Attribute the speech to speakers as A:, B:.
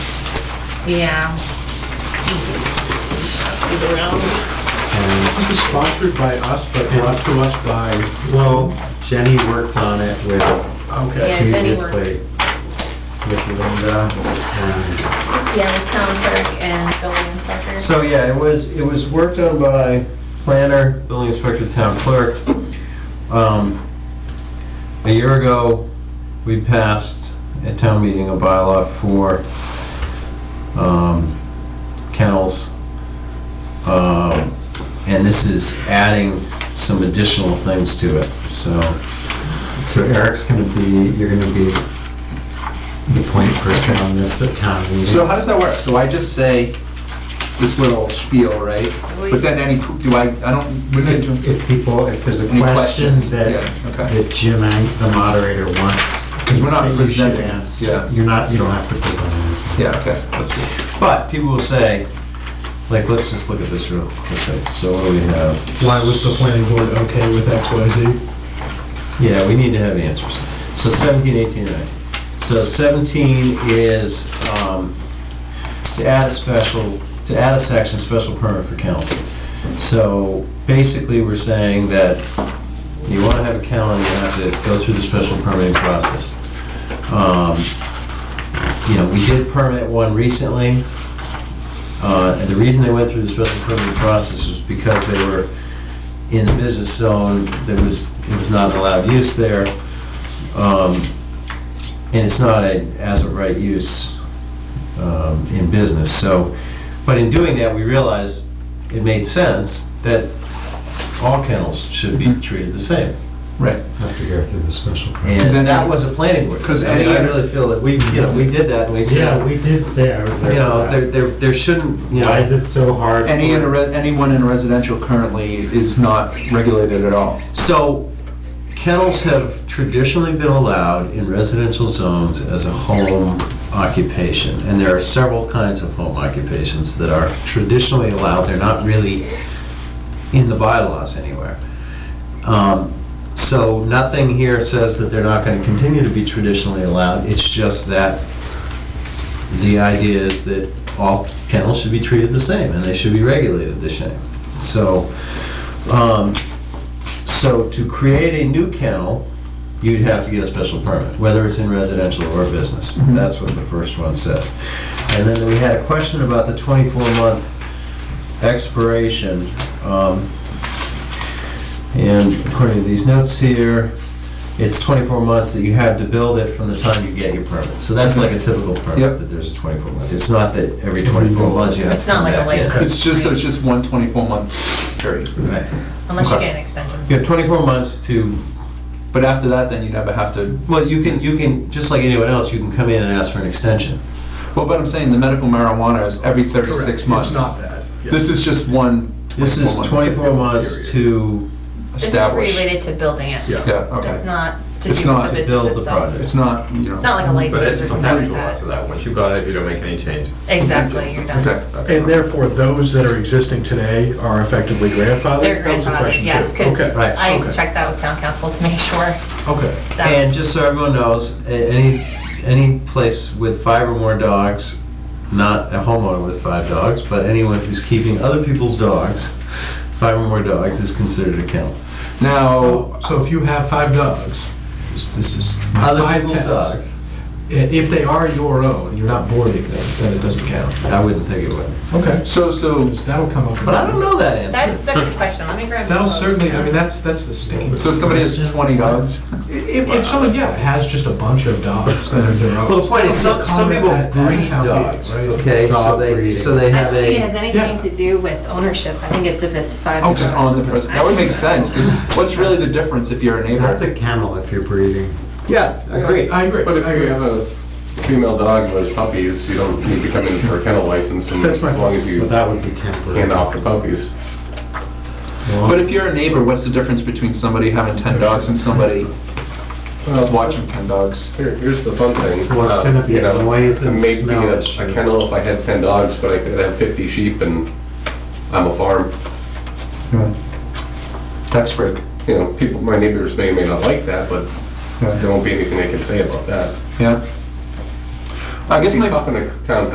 A: Yeah.
B: And
C: This is sponsored by us, but brought to us by,
B: Well, Jenny worked on it with,
C: okay.
A: Yeah, Jenny worked.
B: previously, with Linda. and-
A: Yeah, the town clerk and building inspector.
B: So, yeah, it was, it was worked on by planner, building inspector, town clerk. Um, A year ago, we passed at town meeting a bylaw for um, kennels. Um, And this is adding some additional things to it, so. So Eric's gonna be, you're gonna be the point person on this at town meeting.
C: So how does that work? So I just say this little spiel, right? But then any, do I, I don't, we didn't do-
B: If people, if there's a
C: Any
B: question
C: questions?
B: that,
C: Yeah, okay.
B: that Jim, Ang- the moderator, wants.
C: 'Cause we're not
B: that you should
C: presenting,
B: answer,
C: yeah.
B: You're not, you don't have to present anything.
C: yeah, okay, that's good.
B: But people will say, like, let's just look at this real quickly. So what do we have?
D: Why was the planning board okay with X, Y, Z?
B: Yeah, we need to have answers. So 17, 18, 19. So 17 is um, to add a special, to add a section, special permit for kennels. So basically, we're saying that you want to have a kennel, you have to go through the special permitting process. Um, You know, we did permit one recently. Uh, And the reason they went through the special permitting process was because they were in the business zone, there was, it was not allowed use there. Um, And it's not a as of right use um, in business, so, but in doing that, we realized it made sense that all kennels should be treated the same.
C: Right.
D: Have to go through the special.
C: Because then-
B: And that was a planning board.
C: 'Cause
B: I mean, I
C: any-
B: really feel that we, you know, we did that, and we
D: Yeah,
B: said,
D: we did say I was
B: you
D: there.
B: know,
D: for
B: there,
D: that.
B: there there shouldn't, you know.
D: Why is it so hard?
C: Any,
D: for-
C: in a re- anyone in a residential currently is not regulated at all.
B: So kennels have traditionally been allowed in residential zones as a home occupation, and there are several kinds of home occupations that are traditionally allowed, they're not really in the bylaws anywhere. Um, So nothing here says that they're not gonna continue to be traditionally allowed, it's just that the idea is that all kennels should be treated the same, and they should be regulated the same. So, um, so to create a new kennel, you'd have to get a special permit, whether it's in residential or business. That's what the first one says. And then we had a question about the 24-month expiration. um, And according to these notes here, it's 24 months that you have to build it from the time you get your permit. So that's like a typical permit,
C: Yep.
B: that there's a 24 month. It's not that every 24 months you have to
A: It's not
B: come
A: like a
B: back in.
A: license.
C: It's just, it's just one 24-month period.
B: Right.
A: Unless you
C: Okay.
A: get an extension.
B: You have 24 months to
C: But after that, then you never have to,
B: Well, you can, you can, just like anyone else, you can come in and ask for an extension.
C: well, but I'm saying the medical marijuana is every 36 months.
E: It's not that.
C: This is just one.
B: This is 24 months to
A: This is
C: establish.
A: related to building it.
E: Yeah.
C: Yeah,
A: It's
C: okay.
A: not to do
C: It's
A: with
C: not
A: the
C: to
A: business
B: build the
A: itself.
B: product.
C: It's not, you know.
A: It's not like a
F: But
A: license
F: it's
A: or something like
F: perpetual after
A: that.
F: that. Once you've got it, you don't make any changes.
A: Exactly, you're done.
C: Okay.
E: And therefore, those that are existing today are effectively grandfathered?
A: They're
E: That was the
A: grandfathered,
E: question,
A: yes,
E: too.
A: because
E: Okay.
B: Right,
A: I
E: okay.
A: checked that with town council to make sure
E: Okay.
A: that
B: And just so everyone knows, a- any, any place with five or more dogs, not a homeowner with five dogs, but anyone who's keeping other people's dogs, five or more dogs is considered a kennel.
C: Now,
E: So if you have five dogs,
B: This is
E: My
B: other
E: five
B: people's
E: pets.
B: dogs.
E: i- if they are your own, you're not boarding them, then it doesn't count.
B: I wouldn't think it would.
E: Okay.
C: so, so,
E: That'll come up. in-
B: But I don't know that
A: That's
B: answer.
A: the good question, let me grab.
E: That'll certainly, I mean, that's, that's the sticking.
C: so if somebody has 20 dogs,
E: If, if someone, yeah, has just a bunch of dogs that are their own.
B: Well, the point is, some, some people
E: Comment at- at
B: breed
E: town meeting,
B: dogs,
E: right?
B: okay? So
D: Dog
B: they,
D: breeding.
B: so they
G: I
B: have
G: don't think it has
B: a,
G: anything to do with ownership. I think it's if it's five.
C: oh, just on the person, that would make sense, because what's really the difference if you're a neighbor?
B: That's
D: It's a kennel if you're breeding.
B: yeah, agreed.
E: I agree,
F: But if
E: I
F: you
E: agree.
F: have a female dog who has puppies, you don't need to come in for a kennel license and
E: That's right.
F: as long as you
D: But that would be temporary.
F: hand off the puppies.
C: But if you're a neighbor, what's the difference between somebody having 10 dogs and somebody watching 10 dogs?
F: Here- Here's the fun thing.
D: Well, it's
F: uh,
D: gonna be
F: you know,
D: a noise and
F: maybe
D: smell
F: a-
D: issue.
F: A kennel if I had 10 dogs, but I could have 50 sheep and I'm a farm.
C: Tax break.
F: You know, people, my neighbors may or may not like that, but there won't be anything they can say about that.
C: Yeah. I guess
F: It's
C: my,
F: tough in a town